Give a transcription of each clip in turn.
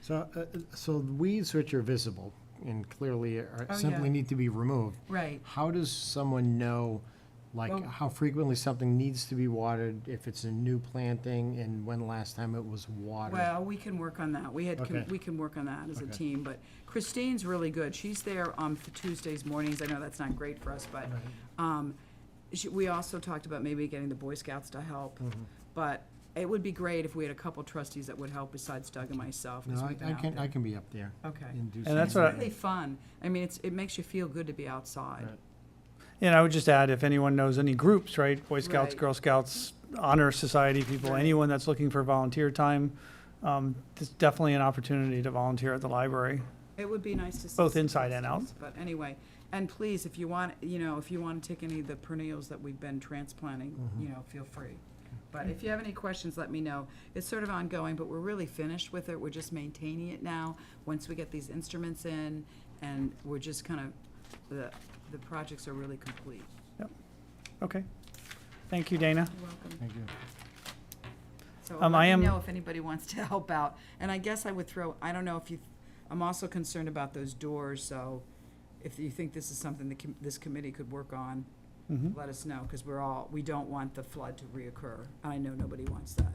So, uh, so weeds which are visible and clearly are, Oh, simply yeah. need to be removed. Right. How does someone know, Well- like, how frequently something needs to be watered, if it's a new planting, and when the last time it was watered? Well, we can work on that. We had, com- Okay. we can work on that as a Okay. team, but Christine's really good. She's there um, for Tuesdays mornings. I know that's not great for us, but um, she- we also talked about maybe getting the Boy Scouts to help. Mm-hmm. But it would be great if we had a couple trustees that would help besides Doug and myself. 'cause No, I we've been I out can, there. I can be up there. Okay. And do And that's something. what I- Really fun. I mean, it's, it makes you feel good to be outside. Right. And I would just add, if anyone knows any groups, right, Boy Scouts, Right. Girl Scouts, Honor Society people, Right. anyone that's looking for volunteer time, um, it's definitely an opportunity to volunteer at the library. It would be nice to see. Both some inside and out. posters, But anyway, and please, if you want, you know, if you want to take any of the perennials that we've been transplanting, you know, feel free. But if you have any questions, let me know. It's sort of ongoing, but we're really finished with it. We're just maintaining it now. Once we get these instruments in, and we're just kind of, the, the projects are really complete. Okay. Thank you, Dana. You're welcome. Thank you. So Um, let I me am- know if anybody wants to help out. And I guess I would throw, I don't know if you, I'm also concerned about those doors, so if you think this is something that com- this committee could work on, Mhm. let us know, because we're all, we don't want the flood to reoccur. I know nobody wants that.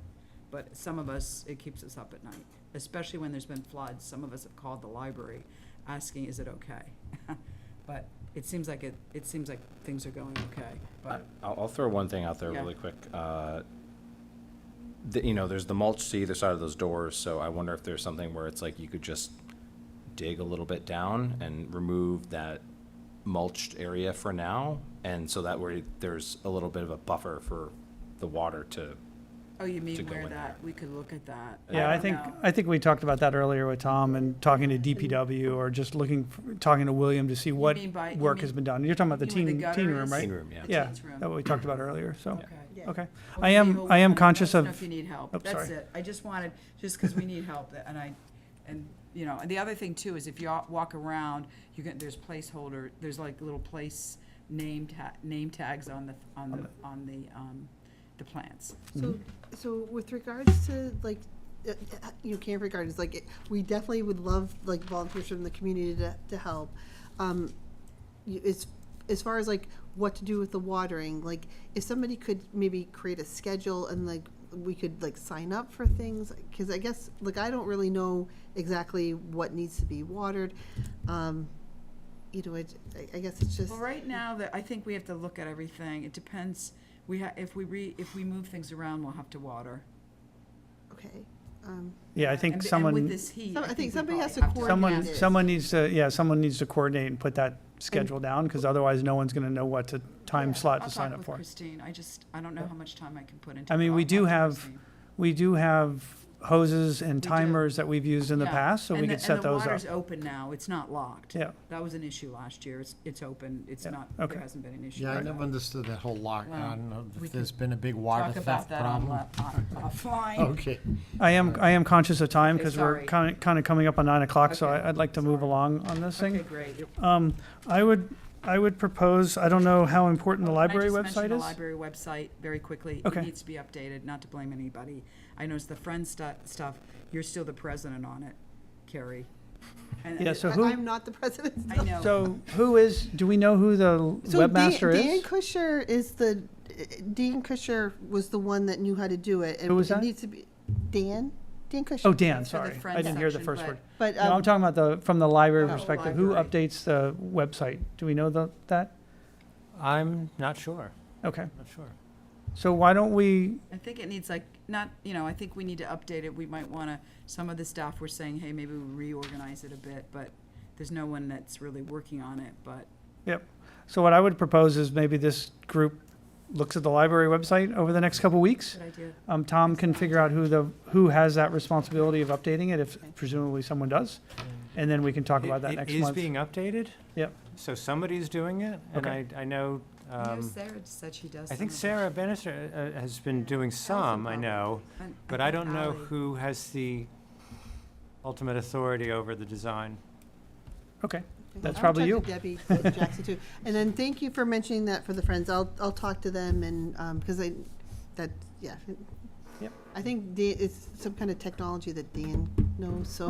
But some of us, it keeps us up at night, especially when there's been floods. Some of us have called the library asking, is it okay? But it seems like it, it seems like things are going okay, but, I'll, I'll throw one thing out there Yeah. really quick. Uh, the, you know, there's the mulch to either side of those doors, so I wonder if there's something where it's like you could just dig a little bit down and remove that mulched area for now, and so that way there's a little bit of a buffer for the water to. oh, you To mean go where in that, we could look at that. Yeah, I don't think, know. I think we talked about that earlier with Tom and talking to DPW or just looking, f- talking to William to see what mean by- you work mean- has been done. You're talking about the you mean the teen, teen room, gutters? right? Teen room, yeah. Yeah, Teens room. that what we talked about earlier, so, Yeah. Okay. okay. Well, I am- Daniel, I am let us conscious know of- If you need help, Oh, that's sorry. it. I just wanted, just because we need help, and I, and, you know, and the other thing too is if you all walk around, you can, there's placeholder, there's like little place name ta, name tags on the, on the, on the, um, the plants. So, so with regards to like, uh, uh, you know, Canterbury Gardens, like, it- we definitely would love like volunteers from the community to, to help. Um, you- it's, as far as like what to do with the watering, like, if somebody could maybe create a schedule and like, we could like sign up for things, cause I guess, like, I don't really know exactly what needs to be watered. Um, you know, it, I, I guess it's just. Well, right now, that, I think we have to look at everything. It depends, we ha, if we re, if we move things around, we'll have to water. Okay, um, Yeah, I And think b- someone. And with this heat, Some- I I think think we somebody probably has to have to. coordinate Someone, Coordinate. someone needs to, yeah, someone needs to coordinate and put that schedule down, because otherwise no one's gonna know what to, time slot to sign I'll talk up with for. Christine. I just, I don't know how much time I can put into. I it. mean, we I'll do talk to have Christine. We do have hoses and do. timers that we've used in the Yeah. past, so we And the- could set And those the up. water's open now, it's not locked. Yeah, That was an issue last year, it's, it's open, it's Yeah. not, Okay. there hasn't been an issue. Yeah, I Right. never understood that whole lock. Well, I don't know we if there's been a big water Talk about theft that on, uh, problem. la- on- offline. Okay. I am, I am conscious of time, Okay, because we're sorry. kind of, kind of coming up on nine o'clock, so Okay, I- I'd like to move along on this Okay, thing. great. Um, I would, I would propose, I don't know how important the Oh, can I library just mention website The is. library website, very quickly. Okay. It needs to be updated, not to blame anybody. I noticed the Friends stu- stuff, you're still the president on it, Carrie. And- Yeah, so I- who- I'm not the president. I know. So who is, do we know who the So Dan, webmaster Dan is? Cusher is the eh, Dan Cusher was the one that knew how to do it. and Who was it that? Needs to be Dan. Dan Cusher. Oh, Dan, That's for the sorry, I Friends didn't hear the section, first but- word. But No, I'm um, talking about the, from the library Oh, perspective, who library. updates the website? Do we know the, that? I'm not sure, Okay, not sure. so why don't we, I think it needs like, not, you know, I think we need to update it. We might want to, some of the staff were saying, hey, maybe we reorganize it a bit, but there's no one that's really working on it, but so what I would propose is maybe this group looks at the library website over the next couple weeks. good idea. Um, Tom can figure out who the, who has that responsibility of updating it, if presumably someone does. And then we can talk about that It- next It is month. being updated? Yep. So somebody's doing it, and I, Okay. I know, I know um, Sarah said she does. I think some Sarah of Bannister uh, uh, has been doing some, I probably. know, it. And but I think don't know Ally- who has the ultimate authority over the design. Okay, that's I'll probably talk to Debbie Jackson too. And then thank you for mentioning that for the friends. I'll I'll talk to them and because I that yeah. Yep. I think Dan, it's some kind of technology that Dan knows. So